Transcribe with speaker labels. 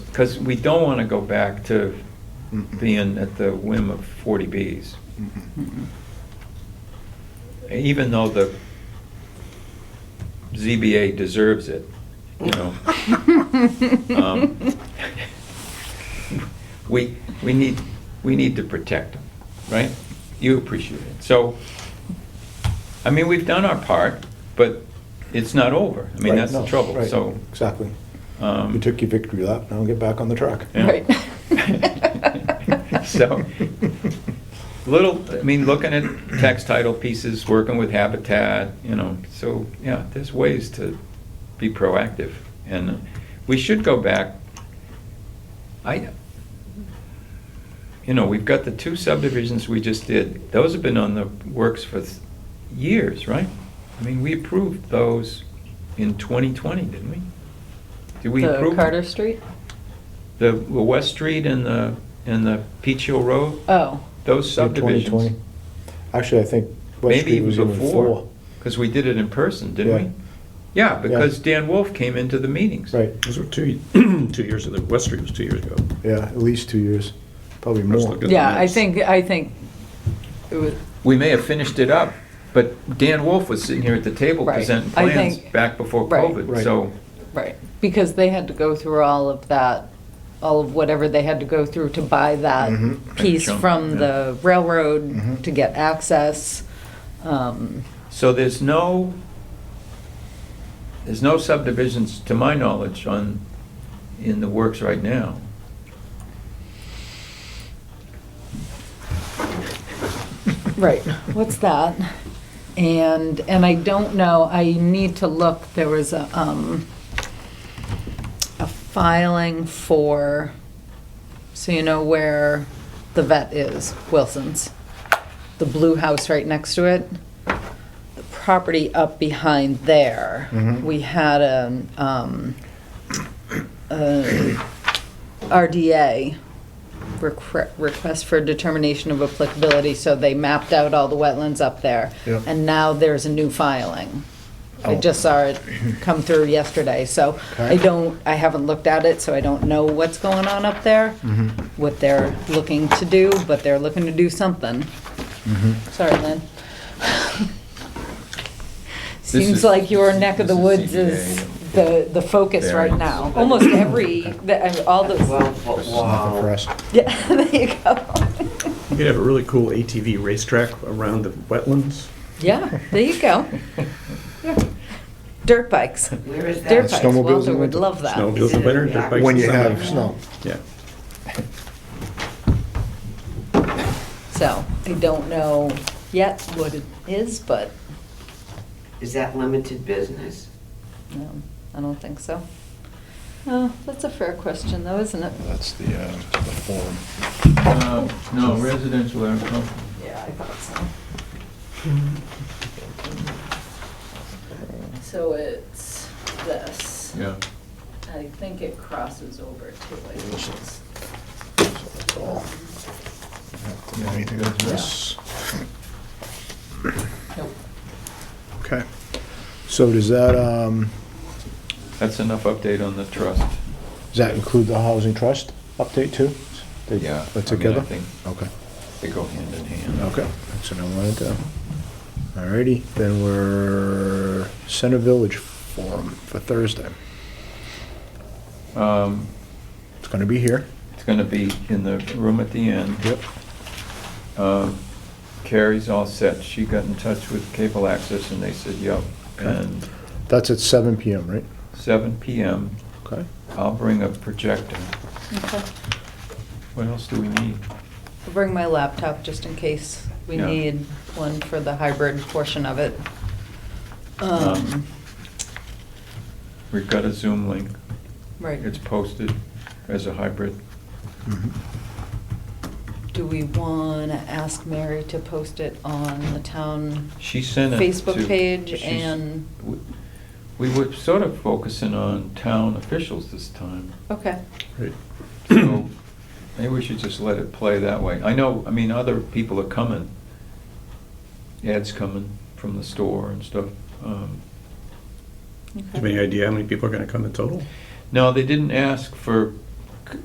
Speaker 1: Because we don't want to go back to
Speaker 2: Mm-mm.
Speaker 1: being at the whim of 40Bs,
Speaker 2: Mhm.
Speaker 1: even though the ZBA deserves it, you know? Um, We, we need, we need to protect them, right? You appreciate it. So, I mean, we've done our part, but it's not over. I mean,
Speaker 2: Right,
Speaker 1: that's the
Speaker 2: no,
Speaker 1: trouble,
Speaker 2: right,
Speaker 1: so.
Speaker 2: Exactly.
Speaker 1: um,
Speaker 2: You took your victory lap, now get back on the track.
Speaker 1: Yeah.
Speaker 3: Right.
Speaker 1: So, little, I mean, looking at tax title pieces, working with Habitat, you know, so, yeah, there's ways to be proactive. And we should go back, I, you know, we've got the two subdivisions we just did. Those have been on the works for th- years, right? I mean, we approved those in 2020, didn't we? Did we approve?
Speaker 3: The
Speaker 1: them?
Speaker 3: Carter Street?
Speaker 1: The the West Street and the, and the Peach Hill Road,
Speaker 3: Oh,
Speaker 1: those
Speaker 2: Yeah, 2020.
Speaker 1: subdivisions.
Speaker 2: Actually, I think West
Speaker 1: Maybe
Speaker 2: Street
Speaker 1: even
Speaker 2: was even
Speaker 1: before,
Speaker 2: four.
Speaker 1: because we did it in person, didn't
Speaker 2: Yeah.
Speaker 1: we? Yeah,
Speaker 2: Yeah.
Speaker 1: because Dan Wolf came into the meetings.
Speaker 2: Right,
Speaker 4: Those were two, two years ago, West Street was two years ago.
Speaker 2: yeah, at least two years, probably
Speaker 4: Let's
Speaker 2: more.
Speaker 4: look at-
Speaker 3: yeah, I
Speaker 4: minutes.
Speaker 3: think, I think it was,
Speaker 1: We may have finished it up, but Dan Wolf was sitting here at the table
Speaker 3: Right.
Speaker 1: presenting
Speaker 3: I
Speaker 1: plans
Speaker 3: think-
Speaker 1: back before
Speaker 3: Right.
Speaker 1: COVID,
Speaker 2: Right.
Speaker 1: so,
Speaker 3: right, because they had to go through all of that, all of whatever they had to go through to buy that
Speaker 1: Mm-hmm.
Speaker 2: Mhm.
Speaker 3: piece
Speaker 1: Jump,
Speaker 3: from
Speaker 1: yeah. Mm-hmm.
Speaker 3: the railroad
Speaker 2: Mhm.
Speaker 3: to get access. Um,
Speaker 1: so there's no, there's no subdivisions, to my knowledge, on, in the works right now.
Speaker 3: Right, what's that? And, and I don't know, I need to look, there was a, um, a filing for, so you know where the vet is, Wilson's, the blue house right next to it, the property up behind there.
Speaker 2: Mhm.
Speaker 3: We had a, um, a RDA requ- request for determination of applicability, so they mapped out all the wetlands up there.
Speaker 2: Yeah.
Speaker 3: And now there's a new filing. I
Speaker 2: Oh.
Speaker 3: just saw it come through yesterday, so I
Speaker 2: Okay.
Speaker 3: don't, I haven't looked at it, so I don't know what's going on up there,
Speaker 2: Mm-hmm.
Speaker 1: Mm-hmm,
Speaker 3: what they're looking to do, but they're looking to do something.
Speaker 1: mm-hmm.
Speaker 3: Sorry, Lynn. Seems
Speaker 1: is-
Speaker 3: like your
Speaker 1: this is-
Speaker 3: neck of
Speaker 1: this
Speaker 3: the
Speaker 1: is
Speaker 3: woods is
Speaker 1: CBA.
Speaker 3: the, the focus right
Speaker 1: Variance.
Speaker 3: now. Almost every, the- I mean, all the.
Speaker 5: Twelve-foot
Speaker 2: Nothing for
Speaker 5: wall.
Speaker 2: us.
Speaker 3: Yeah, there you go.
Speaker 4: You could have a really cool ATV racetrack around the wetlands.
Speaker 3: Yeah, there you go. Dirt bikes.
Speaker 5: Where is
Speaker 3: Dirt
Speaker 5: that?
Speaker 3: bikes,
Speaker 2: snowmobiles in
Speaker 3: Walter would
Speaker 2: winter.
Speaker 3: love that.
Speaker 4: Snowmobiles in winter, dirt bikes
Speaker 2: When
Speaker 4: in
Speaker 2: you
Speaker 4: summer.
Speaker 2: have snow.
Speaker 4: Yeah.
Speaker 3: So I don't know yet what it is, but
Speaker 5: Is that limited business?
Speaker 3: um, I don't think so. Oh, that's a fair question though, isn't it?
Speaker 6: That's the, uh, the form.
Speaker 1: Uh, No, residential agricultural.
Speaker 3: Yeah, I thought so. So it's this.
Speaker 1: yeah.
Speaker 3: I think it crosses over to like.
Speaker 6: That's all. Anything
Speaker 1: Yeah.
Speaker 6: else?
Speaker 3: Nope.
Speaker 2: Okay. So does that, um,
Speaker 1: That's enough update on the trust.
Speaker 2: does that include the housing trust update too? They-
Speaker 1: Yeah,
Speaker 2: That's
Speaker 1: I mean, I
Speaker 2: together?
Speaker 1: think-
Speaker 2: Okay,
Speaker 1: They go hand in hand.
Speaker 2: okay, that's what I wanted to. Alrighty, then we're Center Village Forum for Thursday.
Speaker 1: Um,
Speaker 2: It's gonna be here.
Speaker 1: It's going to be in the room at the end.
Speaker 2: Yep.
Speaker 1: Um, Carrie's all set. She got in touch with Cable Access and they said, yep. And
Speaker 2: That's at seven PM, right?
Speaker 1: seven PM,
Speaker 2: Okay.
Speaker 1: I'll bring a projector.
Speaker 3: Okay.
Speaker 1: What else do we need?
Speaker 3: I'll bring my laptop just in case we
Speaker 1: Yeah.
Speaker 3: need one for the hybrid portion of it.
Speaker 1: Um,
Speaker 3: Um,
Speaker 1: We've got a Zoom link.
Speaker 3: Right,
Speaker 1: It's posted as a hybrid.
Speaker 2: Mhm.
Speaker 3: do we want to ask Mary to post it on the town
Speaker 1: She sent it to...
Speaker 3: Facebook page
Speaker 1: she's-
Speaker 3: and,
Speaker 1: we- We were sort of focusing on town officials this time.
Speaker 3: okay,
Speaker 4: Right.
Speaker 1: So maybe we should just let it play that way. I know, I mean, other people are coming. Ads coming from the store and stuff. Um,
Speaker 4: Do you have any idea how many people are gonna come in total?
Speaker 1: No, they didn't ask for